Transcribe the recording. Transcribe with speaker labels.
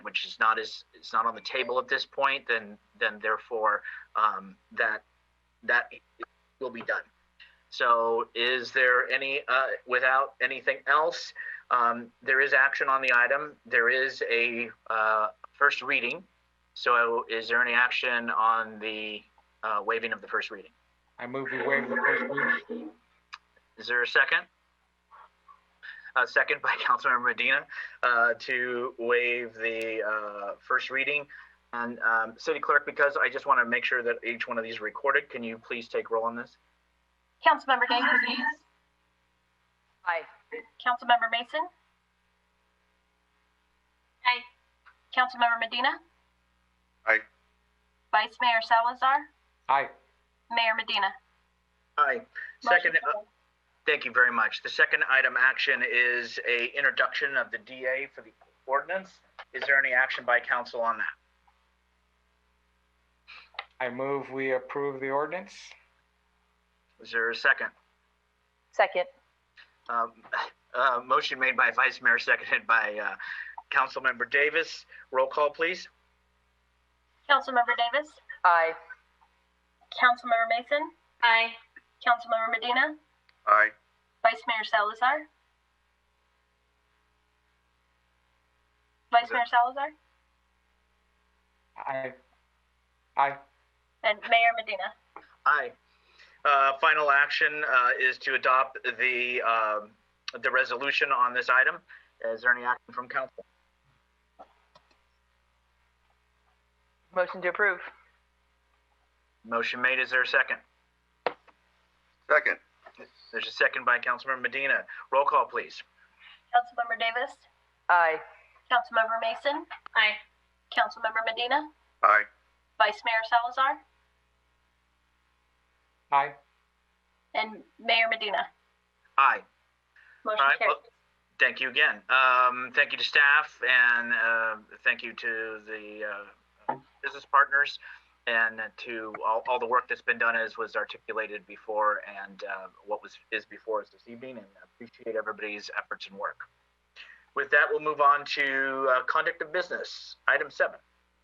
Speaker 1: which is not as, it's not on the table at this point, then, then therefore, um, that, that will be done. So is there any, uh, without anything else, um, there is action on the item. There is a, uh, first reading. So is there any action on the, uh, waiving of the first reading?
Speaker 2: I move we waive the first reading.
Speaker 1: Is there a second? A second by Councilmember Medina uh, to waive the uh, first reading. And um, City Clerk, because I just want to make sure that each one of these are recorded, can you please take roll on this?
Speaker 3: Councilmember Davis. Aye. Councilmember Mason. Aye. Councilmember Medina.
Speaker 4: Aye.
Speaker 3: Vice Mayor Salazar.
Speaker 2: Aye.
Speaker 3: Mayor Medina.
Speaker 1: Aye.
Speaker 3: Motion
Speaker 1: Second, uh,
Speaker 3: carried.
Speaker 1: thank you very much. The second item action is a introduction of the DA for the ordinance. Is there any action by council on that?
Speaker 2: I move we approve the ordinance.
Speaker 1: Is there a second?
Speaker 5: Second.
Speaker 1: Um, uh, Motion made by Vice Mayor, seconded by uh, Councilmember Davis. Roll call, please.
Speaker 3: Councilmember Davis.
Speaker 5: Aye.
Speaker 3: Councilmember Mason. Aye. Councilmember Medina.
Speaker 4: Aye.
Speaker 3: Vice Mayor Salazar. Vice Mayor Salazar
Speaker 2: Aye. Aye.
Speaker 3: and Mayor Medina.
Speaker 1: Aye. Uh, Final action uh, is to adopt the, um, the resolution on this item. Is there any action from council?
Speaker 5: Motion to approve.
Speaker 1: Motion made, is there a second?
Speaker 4: Second.
Speaker 1: There's a second by Councilmember Medina. Roll call, please.
Speaker 3: Councilmember Davis.
Speaker 5: Aye.
Speaker 3: Councilmember Mason. Aye. Councilmember Medina.
Speaker 4: Aye.
Speaker 3: Vice Mayor Salazar
Speaker 2: Aye.
Speaker 3: and Mayor Medina.
Speaker 1: Aye.
Speaker 3: Motion
Speaker 1: All right,
Speaker 3: carried.
Speaker 1: well, thank you again. Um, thank you to staff and, uh, thank you to the, uh, business partners and to all, all the work that's been done as was articulated before and, uh, what was, is before us this evening and appreciate everybody's efforts and work. With that, we'll move on to, uh, conduct of business, item seven.